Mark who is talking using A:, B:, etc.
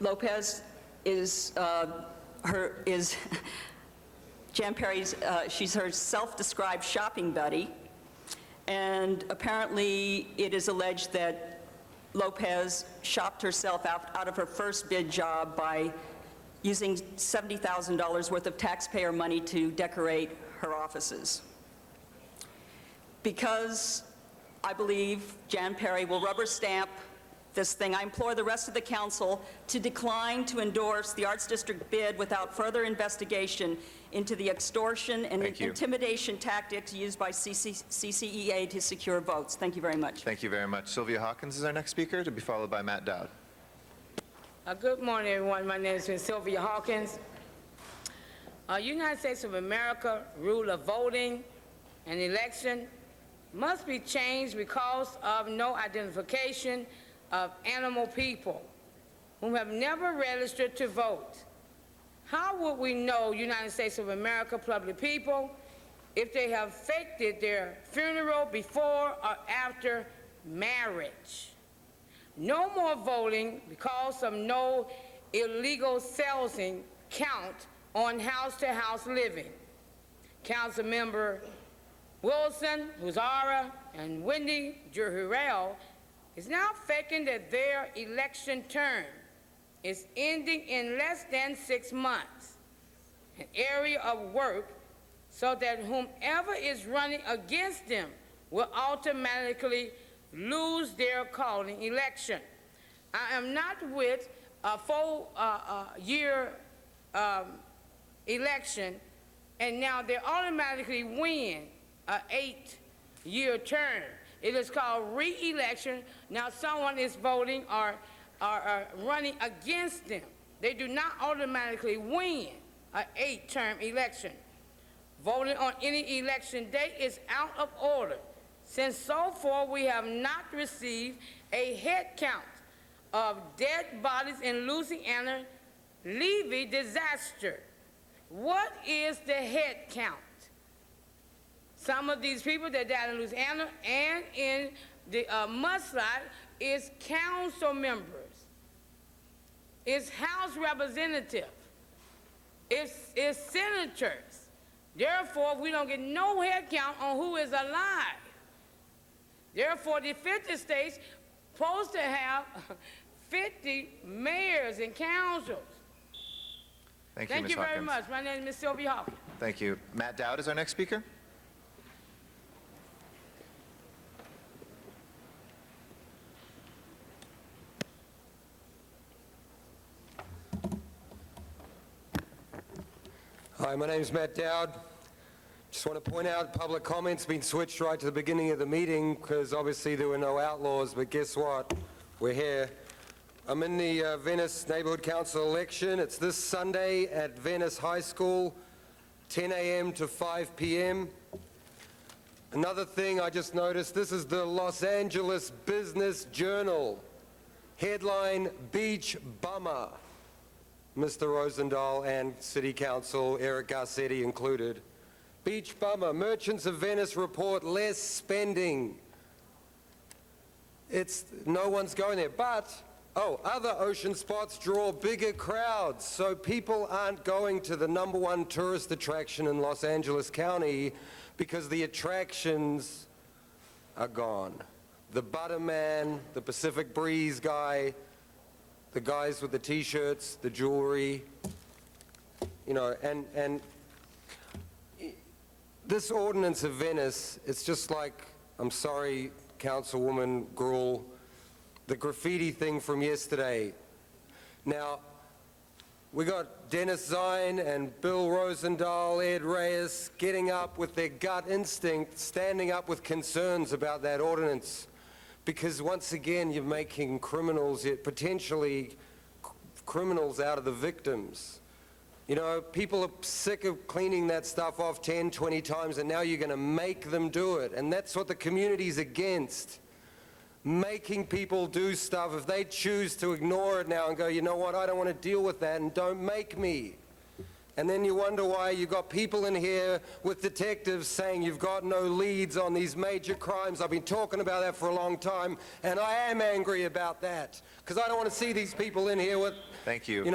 A: Lopez is, uh, her, is Jan Perry's, uh, she's her self-described shopping buddy, and apparently it is alleged that Lopez shopped herself out out of her first bid job by using $70,000 worth of taxpayer money to decorate her offices because I believe Jan Perry will rubber stamp this thing, I implore the rest of the council to decline to endorse the Arts District bid without further investigation into the extortion and
B: Thank you.
A: intimidation tactics used by CC CCEA E to secure votes. Thank you very much.
B: Thank you very much. Sylvia Hawkins is our next speaker, to be followed by Matt Dowd.
C: Uh, Good morning, everyone. My name is Miss Sylvia Hawkins. Uh, United States of America rule of voting and election must be changed because of no identification of animal people who have never registered to vote. How would we know United States of America public people if they have faked it their funeral before or after marriage? No more voting because of no illegal selling count on house-to-house living. Councilmember Wilson, Huzara, and Wendy Jurrell is now faking that their election term is ending in less than six months, an area of work so that whomever is running against them will automatically lose their calling election. I am not with a uh, four-year uh, election, and now they automatically win a eight-year term. It is called re-election. Now someone is voting or, or, or running against them. They do not automatically win a eight-term election. Voting on any election day is out of order, since so far we have not received a head count of dead bodies in Louisiana Levy disaster. What is the head count? Some of these people that died in Louisiana and in the uh, mudslide is council members, is House representative it's, it's senators. Therefore, we don't get no head count on who is alive. Therefore, the 50 states supposed to have 50 mayors and councils.
B: Thank you,
C: Thank
B: Ms.
C: you very
B: Hawkins.
C: much. My name is Miss Sylvia Hawkins.
B: Thank you. Matt Dowd is our next speaker.
D: Hi, my name's Matt Dowd. Just want to point out, public comments been switched right to the beginning of the meeting because obviously there were no outlaws, but guess what? We're here. I'm in the uh, Venice Neighborhood Council election. It's this Sunday at Venice High School, 10 a.m. to 5 p.m. Another thing I just noticed, this is the Los Angeles Business Journal. Headline, Beach Bummer. Mr. Rosendahl and City Council, Eric Garcetti included. Beach bummer, merchants of Venice report less spending. It's, no one's going there, but, oh, other ocean spots draw bigger crowds, so people aren't going to the number one tourist attraction in Los Angeles County because the attractions are gone. The Butterman, the Pacific Breeze guy, the guys with the t-shirts, the jewelry, you know, and, and this ordinance of Venice, it's just like, I'm sorry, Councilwoman Gruhl, the graffiti thing from yesterday. Now, we got Dennis Zine and Bill Rosendahl, Ed Reyes, getting up with their gut instinct, standing up with concerns about that ordinance. Because once again, you're making criminals, yet potentially c- criminals out of the victims. You know, people are sick of cleaning that stuff off 10, 20 times, and now you're going to make them do it. And that's what the community's against making people do stuff, if they choose to ignore it now and go, you know what, I don't want to deal with that and don't make me. And then you wonder why you got people in here with detectives saying you've got no leads on these major crimes. I've been talking about that for a long time, and I am angry about that because I don't want to see these people in here with
B: Thank you.
D: You know,